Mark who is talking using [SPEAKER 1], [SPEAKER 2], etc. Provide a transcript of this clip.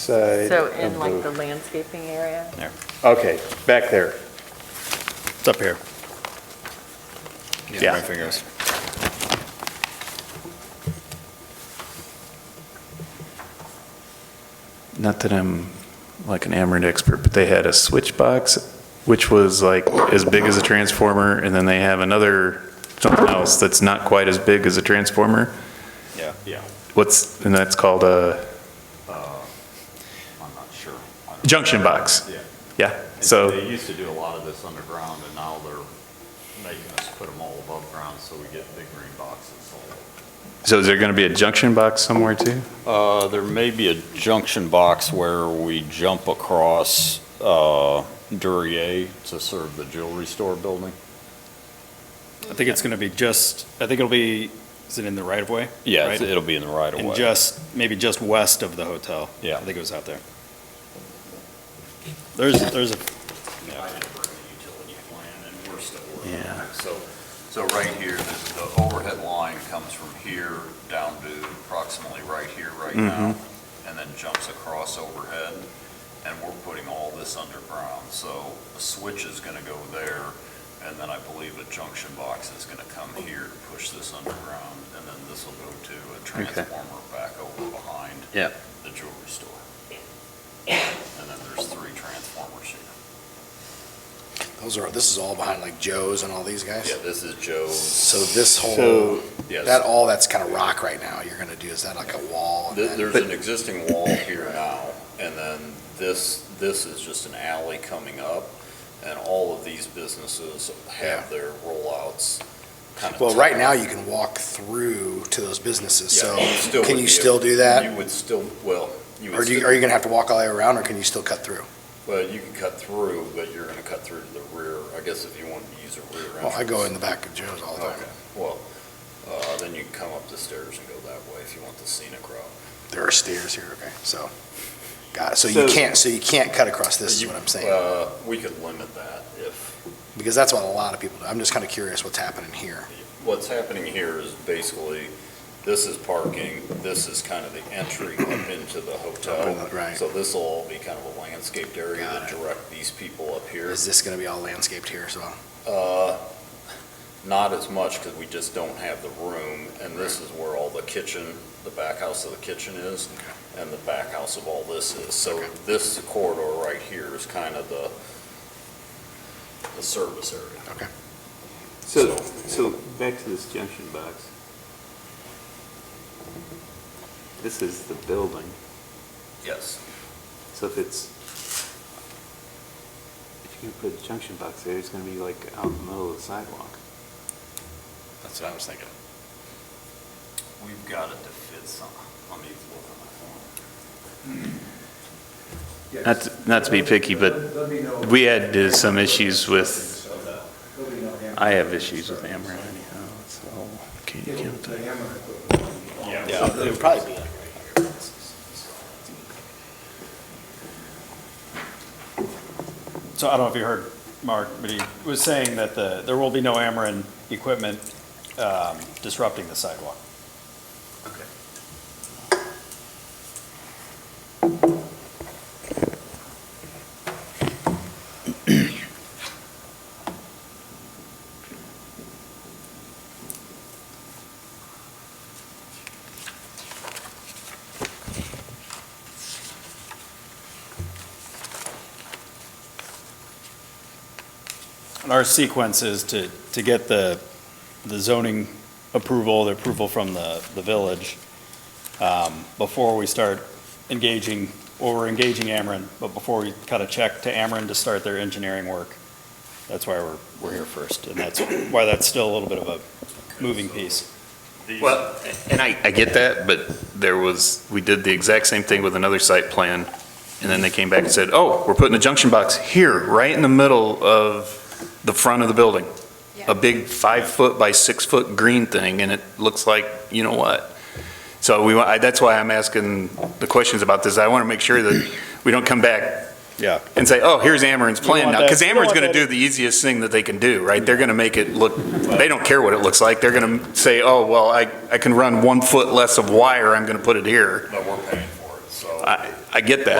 [SPEAKER 1] side
[SPEAKER 2] So
[SPEAKER 1] of
[SPEAKER 2] in like the
[SPEAKER 1] the-
[SPEAKER 2] landscaping area?
[SPEAKER 1] Okay, back there.
[SPEAKER 3] It's up here.
[SPEAKER 1] Yeah.
[SPEAKER 3] My fingers.
[SPEAKER 4] not that I'm like an Amarin expert, but they had a switch box, which was like as big as a transformer, and then they have another something else that's not quite as big as a transformer.
[SPEAKER 3] Yeah.
[SPEAKER 5] Yeah.
[SPEAKER 4] What's, and that's called a
[SPEAKER 5] Uh, I'm not sure. I don't-
[SPEAKER 4] junction box.
[SPEAKER 5] Yeah.
[SPEAKER 4] Yeah,
[SPEAKER 5] And
[SPEAKER 4] so,
[SPEAKER 5] They used to do a lot of this underground, and now they're making us put them all above ground, so we get big green boxes.
[SPEAKER 4] so is there going to be a junction box somewhere too?
[SPEAKER 5] Uh, there may be a junction box where we jump across, uh, Duryea to serve the jewelry store building.
[SPEAKER 3] I think it's going to be just, I think it'll be, is it in the right of way?
[SPEAKER 5] Yeah,
[SPEAKER 3] Right?
[SPEAKER 5] it's- it'll be in the right of
[SPEAKER 3] And
[SPEAKER 5] way.
[SPEAKER 3] just, maybe just west of the hotel.
[SPEAKER 5] Yeah.
[SPEAKER 3] I think it was out there. There's, there's a
[SPEAKER 5] I did bring the utility plan, and we're still working on it.
[SPEAKER 4] Yeah.
[SPEAKER 5] So, so right here, this- the overhead line comes from here down to approximately right here, right now, and then jumps across overhead, and we're putting all this underground. So a switch is going to go there, and then I believe a junction box is going to come here to push this underground, and then this will go to a transformer back over behind
[SPEAKER 3] Yeah.
[SPEAKER 5] the jewelry store. And then there's three transformers here.
[SPEAKER 6] Those are, this is all behind like Joe's and all these guys?
[SPEAKER 5] Yeah, this is Joe's.
[SPEAKER 6] So this
[SPEAKER 1] So-
[SPEAKER 6] whole, that,
[SPEAKER 5] Yes,
[SPEAKER 6] all that's kind of rock right now, you're gonna do, is that like a wall? and
[SPEAKER 5] Th-
[SPEAKER 6] then-
[SPEAKER 5] there's an existing wall here now, and then this, this is just an alley coming up, and all of these businesses have their rollouts kind of.
[SPEAKER 6] Well, right now, you can walk through to those businesses, so
[SPEAKER 5] Yeah, still
[SPEAKER 6] can
[SPEAKER 5] would
[SPEAKER 6] you
[SPEAKER 5] be-
[SPEAKER 6] still do that?
[SPEAKER 5] You would still, well, you
[SPEAKER 6] Or
[SPEAKER 5] would
[SPEAKER 6] do you,
[SPEAKER 5] still,
[SPEAKER 6] are you gonna have to walk all the way around, or can you still cut through?
[SPEAKER 5] well, you can cut through, but you're gonna cut through to the rear, I guess if you wanted to use a rear entrance.
[SPEAKER 6] Well, I go in the back of Joe's all the time.
[SPEAKER 5] Okay, well, uh, then you can come up the stairs and go that way if you want the scenic route.
[SPEAKER 6] There are stairs here, okay, so, got it. So
[SPEAKER 1] So-
[SPEAKER 6] you can't, so you can't cut across, this is
[SPEAKER 5] You-
[SPEAKER 6] what I'm saying.
[SPEAKER 5] Uh, we could limit that if,
[SPEAKER 6] Because that's what a lot of people do. I'm just kind of curious what's happening here.
[SPEAKER 5] What's happening here is basically, this is parking, this is kind of the entry up into the hotel.
[SPEAKER 6] Right.
[SPEAKER 5] So this will all be kind of a landscaped area
[SPEAKER 6] Got
[SPEAKER 5] that
[SPEAKER 6] it.
[SPEAKER 5] direct these people up here.
[SPEAKER 6] Is this gonna be all landscaped here as well?
[SPEAKER 5] Uh, Not as much, because we just don't have the room, and this is where all the kitchen, the back house of the kitchen is, and the back house of all this is. So
[SPEAKER 6] Okay.
[SPEAKER 5] this corridor right here is kind of the, the service area.
[SPEAKER 6] Okay.
[SPEAKER 1] So, so back to this junction box. This is the building,
[SPEAKER 5] Yes.
[SPEAKER 1] so if it's, if you can put a junction box there, it's gonna be like out in the middle of the sidewalk.
[SPEAKER 5] That's what I was thinking. We've got it to fit some, let me look on my phone.
[SPEAKER 4] Not, to- not to be picky, but we had uh, some issues with, I have issues with Amarin anyhow, so. can you count that?
[SPEAKER 5] Yeah, it would probably be.
[SPEAKER 3] So I don't know if you heard Mark, but he was saying that the, there will be no Ameren equipment um, disrupting the sidewalk. And our sequence is to, to get the, the zoning approval, the approval from the, the village, um, before we start engaging, or we're engaging Ameren, but before we cut a check to Ameren to start their engineering work. That's why we're, we're here first, and that's why that's still a little bit of a moving piece.
[SPEAKER 4] Well, and I, I get that, but there was, we did the exact same thing with another site plan, and then they came back and said, oh, we're putting a junction box here, right in the middle of the front of the building. A big five-foot by six-foot green thing, and it looks like, you know what? So we, wa- I- that's why I'm asking the questions about this. I want to make sure that we don't come back
[SPEAKER 3] Yeah.
[SPEAKER 4] and say, oh, here's Ameren's
[SPEAKER 3] You
[SPEAKER 4] plan
[SPEAKER 3] want
[SPEAKER 4] now.
[SPEAKER 3] that-
[SPEAKER 4] Because
[SPEAKER 3] you want
[SPEAKER 4] Ameren's going to
[SPEAKER 3] that- Mm-hmm.
[SPEAKER 4] do the easiest thing that they can do, right? They're going to make it look, they don't care what it looks like. They're going to say, oh, well, I, I can run one foot less of wire, I'm going to put it here.
[SPEAKER 5] But we're paying for it, so.
[SPEAKER 4] I, I get that.